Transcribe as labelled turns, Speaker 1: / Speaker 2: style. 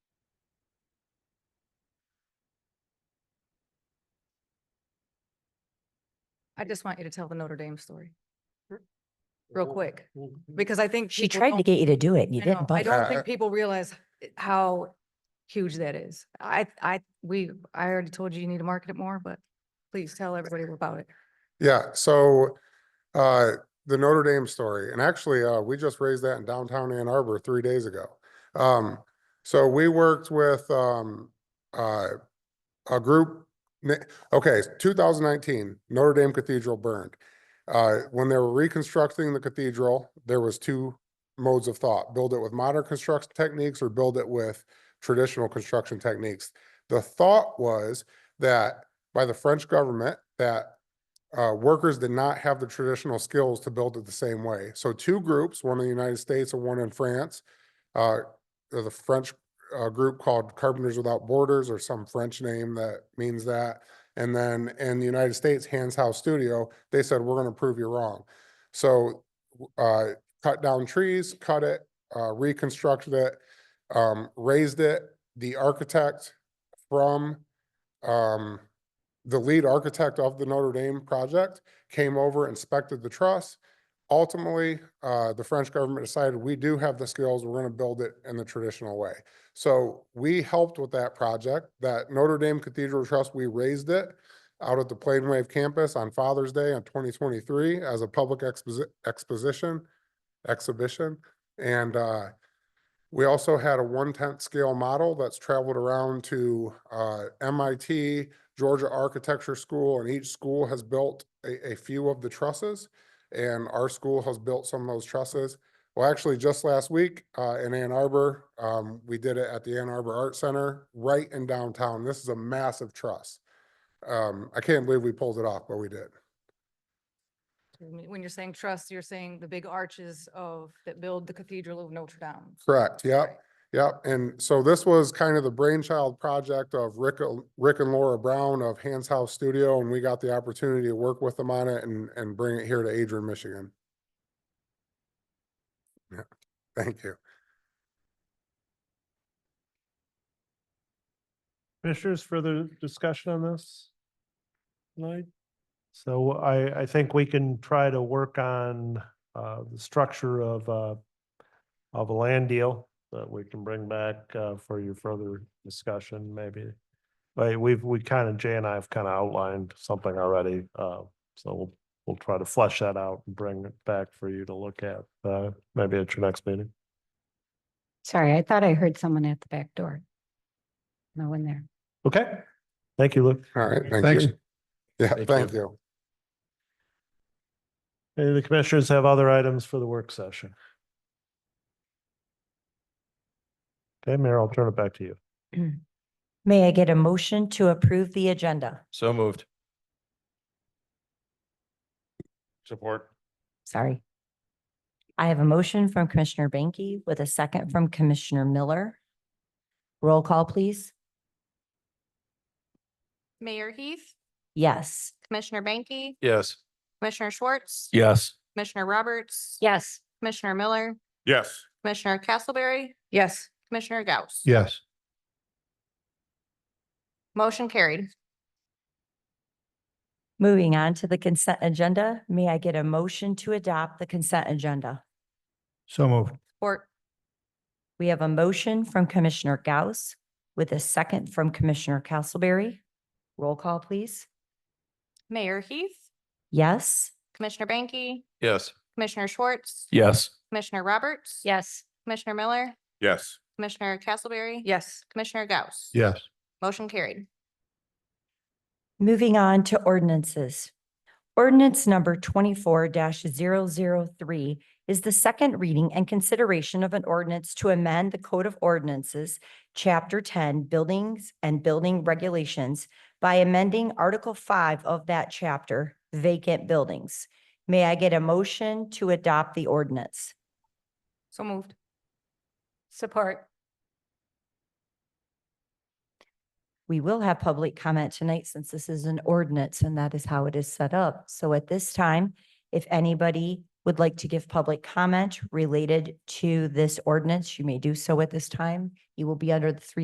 Speaker 1: I just want you to tell the Notre Dame story real quick, because I think.
Speaker 2: She
Speaker 1: people
Speaker 2: tried to
Speaker 1: don't-
Speaker 2: get you to do it and you
Speaker 1: I know.
Speaker 2: didn't
Speaker 1: I
Speaker 2: budge.
Speaker 1: don't
Speaker 3: Uh,
Speaker 1: think people realize how huge that is. I, I, we, I already told you you need to market it more, but please tell everybody about it.
Speaker 3: Yeah, so uh, the Notre Dame story, and actually, uh, we just raised that in downtown Ann Arbor three days ago. Um, so we worked with um, uh, a group. na- Okay, 2019 Notre Dame Cathedral burned. Uh, when they were reconstructing the cathedral, there was two modes of thought: build it with modern construction techniques or build it with traditional construction techniques. The thought was that by the French government that uh, workers did not have the traditional skills to build it the same way. So two groups, one in the United States and one in France, uh, there's a French uh, group called Carpenters Without Borders or some French name that means that. And then in the United States, Hands House Studio, they said, we're going to prove you wrong. So w- uh, cut down trees, cut it, uh, reconstructed it, um, raised it. The architect from um, the lead architect of the Notre Dame project came over, inspected the truss. Ultimately, uh, the French government decided we do have the skills, we're going to build it in the traditional way. So we helped with that project, that Notre Dame Cathedral Trust, we raised it out at the Plain Wave Campus on Father's Day in twenty twenty-three as a public exposi- exposition, exhibition. And, uh, we also had a one-tenth scale model that's traveled around to, uh, MIT, Georgia Architecture School, and each school has built a, a few of the trusses. And our school has built some of those trusses. Well, actually, just last week, uh, in Ann Arbor, um, we did it at the Ann Arbor Art Center, right in downtown. This is a massive truss. Um, I can't believe we pulled it off, but we did.
Speaker 1: When when you're saying trust, you're saying the big arches of, that build the Cathedral of Notre Dame.
Speaker 3: Correct,
Speaker 1: Right.
Speaker 3: yep, yep. And so this was kind of the brainchild project of Rick, and- Rick and Laura Brown of Hands House Studio, and we got the opportunity to work with them on it and, and bring it here to Adrian, Michigan. Yeah, thank you.
Speaker 4: Commissioners, further discussion on this? tonight? So I, I think we can try to work on, uh, the structure of, uh, of a land deal that we can bring back, uh, for your further discussion, maybe. But we've, we kind of, Jay and I have kind of outlined something already, uh, so we'll, we'll try to flesh that out and bring it back for you to look at, uh, maybe at your next meeting.
Speaker 2: Sorry, I thought I heard someone at the back door. No one there.
Speaker 4: Okay, thank you, Luke.
Speaker 3: All right, thank
Speaker 5: Thanks.
Speaker 3: you. Yeah,
Speaker 5: Thank
Speaker 3: thank
Speaker 5: you.
Speaker 3: you.
Speaker 4: Any of the commissioners have other items for the work session? Okay, Mayor, I'll turn it back to you.
Speaker 2: May I get a motion to approve the agenda?
Speaker 5: So moved.
Speaker 4: Support.
Speaker 2: Sorry. I have a motion from Commissioner Banky with a second from Commissioner Miller. Roll call, please.
Speaker 6: Mayor Heath,
Speaker 2: Yes.
Speaker 6: Commissioner Banky,
Speaker 5: Yes.
Speaker 6: Commissioner Schwartz.
Speaker 5: Yes.
Speaker 6: Commissioner Roberts.
Speaker 2: Yes.
Speaker 6: Commissioner Miller,
Speaker 3: Yes.
Speaker 6: Commissioner Castleberry,
Speaker 1: Yes,
Speaker 6: Commissioner Gauss.
Speaker 5: Yes.
Speaker 6: Motion carried.
Speaker 2: Moving on to the consent agenda, may I get a motion to adopt the consent agenda?
Speaker 5: So moved.
Speaker 1: or
Speaker 2: We have a motion from Commissioner Gauss with a second from Commissioner Castleberry. Roll call, please.
Speaker 6: Mayor Heath,
Speaker 2: Yes.
Speaker 6: Commissioner Banky,
Speaker 5: Yes.
Speaker 6: Commissioner Schwartz.
Speaker 5: Yes.
Speaker 6: Commissioner Roberts.
Speaker 2: Yes.
Speaker 6: Commissioner Miller,
Speaker 3: Yes.
Speaker 6: Commissioner Castleberry.
Speaker 1: yes,
Speaker 6: Commissioner Gauss.
Speaker 5: Yes.
Speaker 6: Motion carried.
Speaker 2: Moving on to ordinances. Ordinance number twenty-four 3 is the second reading and consideration of an ordinance to amend the Code of Ordinances, Chapter ten, Buildings and Building Regulations by amending Article five of that chapter, vacant buildings. May I get a motion to adopt the ordinance?
Speaker 1: so moved.
Speaker 2: Support. We will have public comment tonight since this is an ordinance and that is how it is set up. So at this time, if anybody would like to give public comment related to this ordinance, you may do so at this time. You will be under the three